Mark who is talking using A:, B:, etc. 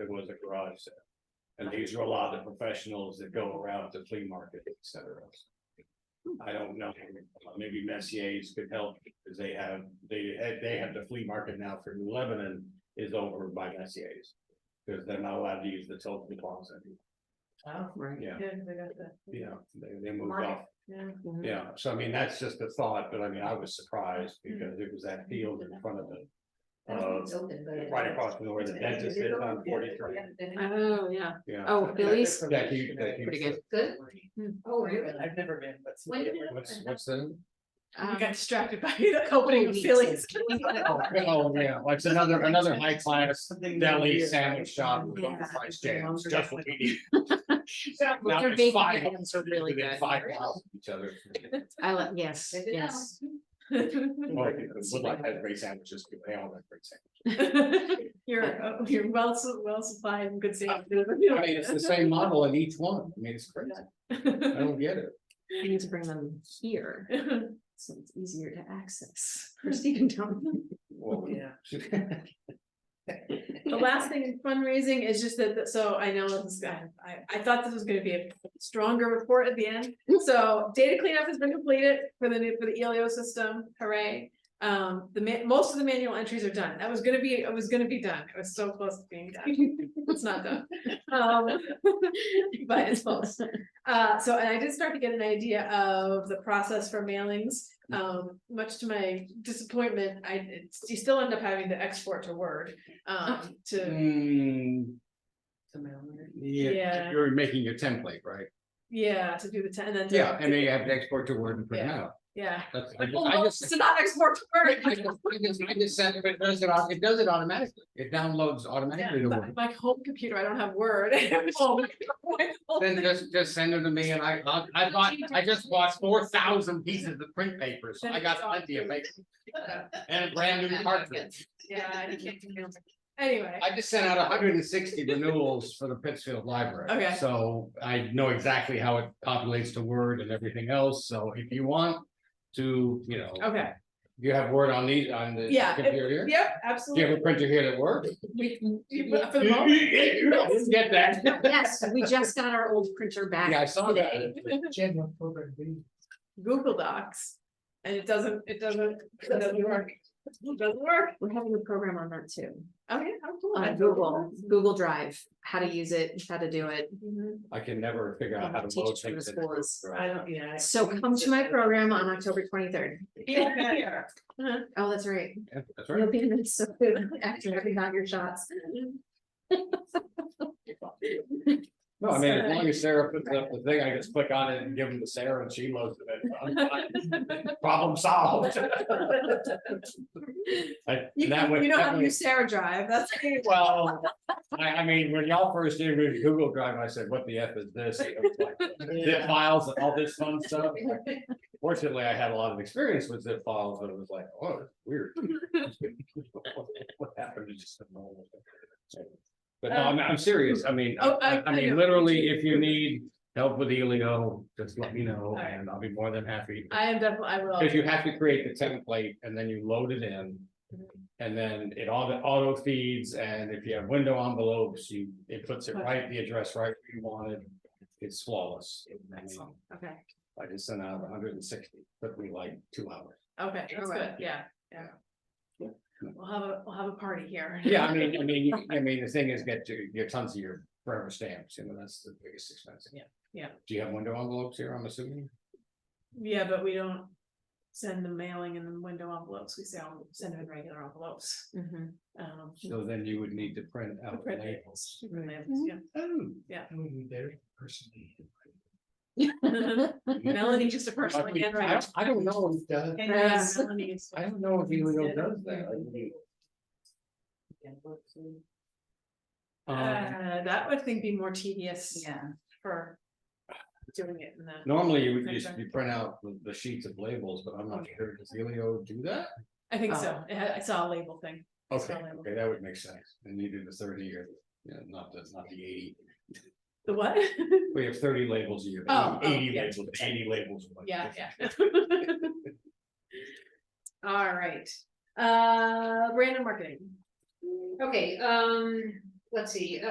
A: a garage sale. And these are a lot of the professionals that go around to flea market, et cetera. I don't know, maybe Messier's could help, because they have, they had, they have the flea market now for New Lebanon is over by Messier's. Because they're not allowed to use the Tilton Plaza,
B: Oh,
C: Right.
A: yeah,
B: yeah, they got that.
A: yeah, they, they moved
B: Market.
A: off.
B: Yeah.
A: Yeah, so I mean, that's just a thought, but I mean, I was surprised because it was that field in front of the. Uh, right across from where the dentist is on forty three,
C: Oh, yeah.
A: yeah.
C: Oh, Billy's.
A: That huge, that huge.
C: Pretty good.
D: Good.
C: Hmm.
D: Oh, really?
B: I've never been, but.
D: When did it
A: What's,
D: open?
A: what's the?
B: I
C: Um,
B: got distracted by the opening of Phillies.
A: Oh, yeah, like it's another, another high class
B: Something
A: deli
B: weird.
A: sandwich shop with
C: Yeah.
A: overpriced jams, just what we need. Now
C: Their
A: there's
C: bacon
A: five of
C: items are really
A: within
C: good.
A: Five miles of each other.
C: I like, yes,
D: Good to know.
C: yes.
A: Well, Woodlock has great sandwiches, they all have great sandwiches.
B: You're, uh, you're well, su- well supplied and good safety.
A: I mean, it's the same model in each one, I mean, it's crazy, I don't get it.
C: I need to bring them here, so it's easier to access. Christie can tell me.
A: Well,
B: Yeah. The
D: The
B: last thing in fundraising is just that, that- so I know this is, I, I- I thought this was gonna be a stronger report at the end. So data cleanup has been completed for the E new, for the ELO system, hooray. Um, the ma- most of the manual entries are done. That was gonna be, it was gonna be done. It was so close to being done. It's not done. Um, but it's close. Uh, so, and I did start to get an idea of the process for mailings. Um, much to my disappointment, I, it's- you still end up having to export to Word, um, to,
A: Hmm,
B: Yeah.
A: yeah, you're making your template, right?
B: yeah, to do the, te- and then. to-
A: Yeah, and then you have to export to Word and print it out.
B: Yeah.
A: That's, I
B: Like,
A: just,
B: oh,
A: I
B: no,
A: just.
B: it's not export to
A: I
B: Word.
A: just- I just- I just said, it does it, au- it does it automatically, it downloads automatically to
B: Yeah,
A: Word.
B: My home computer, I don't have Word. Oh, my God.
A: Then just, just send them to me and I, I'll- I bought, I just bought four thousand pieces of print paper, so I got plenty of paper. And a brand new cartridge,
B: Yeah, you can't do it. Anyway,
A: I just sent out hundred and sixty renewals for the Pittsfield Library.
B: Okay.
A: So I know exactly how it populates to Word and everything else, so if you want to, you know.
B: okay,
A: You have Word on these, on the
B: Yeah, it-
A: computer here?
B: yep,
A: Do you have
B: absolutely.
A: a printer here that works?
B: You put it for the moment.
A: Didn't Get that?
C: Yes, we just got our old printer
A: Yeah, I
C: back.
A: saw that.
B: Google Docs, and it doesn't, it doesn't, it doesn't work. It doesn't work.
C: We're having a program on that too,
B: Okay, how cool.
C: on Google, Google Drive, how to use it, how to do it.
B: Mhm.
A: I can never figure
C: I'll
A: out how to
C: teach
A: load
C: it to the
A: things. in
C: schools.
A: Google Drive.
B: I don't, yeah.
C: So come to my program on October twenty-third.
B: Yeah.
C: Oh, that's right.
A: Yeah, That's right.
C: You'll be in Minnesota after having got your shots.
A: No, I mean, as
B: Sorry.
A: long as Sarah puts up the thing, I just click on it and give them to Sarah and she loads it. I'm fine. Problem solved. I-
B: You,
A: that would-
B: you know
A: that
B: how to
A: would-
B: use Sarah Drive, that's.
A: Well, I, I mean, when y'all first introduced Google Drive, I said, what the F is this? It was like Zip files and all this fun stuff. Fortunately, I had a lot of experience with zip files, but it was like, oh, it's weird. What happened to just a normal? thing? But no, I'm, I'm serious. I mean, I,
B: Oh, I-
A: I- I
B: I know.
A: mean, literally, if you need help with Elio, just let me know
B: right.
A: and I'll be more than happy.
B: I am definitely, I will.
A: Cause you have to create the template and then you load it in. And then it all, auto feeds, and if you have window envelopes, you, it puts it right, the address right where you want it. It's flawless. I mean,
C: Excellent. Okay.
A: I just sent out hundred and sixty, took me like two hours.
B: Okay, that's good,
C: Alright.
B: yeah, yeah. We'll have a, we'll have a party here.
A: Yeah, I mean, I mean, you- I mean, the thing is get your, get tons of your forever stamps, you know, that's the biggest expense.
B: Yeah, yeah.
A: Do you have window envelopes here, I'm assuming?
B: Yeah, but we don't send the mailing in the window envelopes, we sell, send them in regular envelopes.
C: Mhm.
B: Um,
A: So then you would need to print out
B: Print
A: labels.
B: different labels, yeah.
A: Oh.
B: Yeah.
A: I would be there personally.
B: Melanie just a person
A: I mean,
B: again,
A: I
B: right?
A: don't- I don't know if that.
B: Yeah,
C: Yes.
B: Melanie is- uh,
A: I don't know if Elio does that. Um,
B: Uh, that would think be more tedious
D: Yeah.
B: for doing it in the.
A: normally you would
B: Okay.
A: just, you print out the, the sheets of labels, but I'm not sure, does Elio do that?
B: I think so,
C: Oh.
B: It had- I saw a label thing.
A: Okay,
B: Sell labels.
A: okay, that would make sense, and you do the thirty year, yeah, not the, not the eighty,
B: The what?
A: we have thirty labels a year,
B: Oh, oh,
A: eighty
B: yeah.
A: labels, eighty labels. a month.
B: Yeah, yeah. All right, uh, brand and marketing.
C: uh,
D: Okay, um, let's see,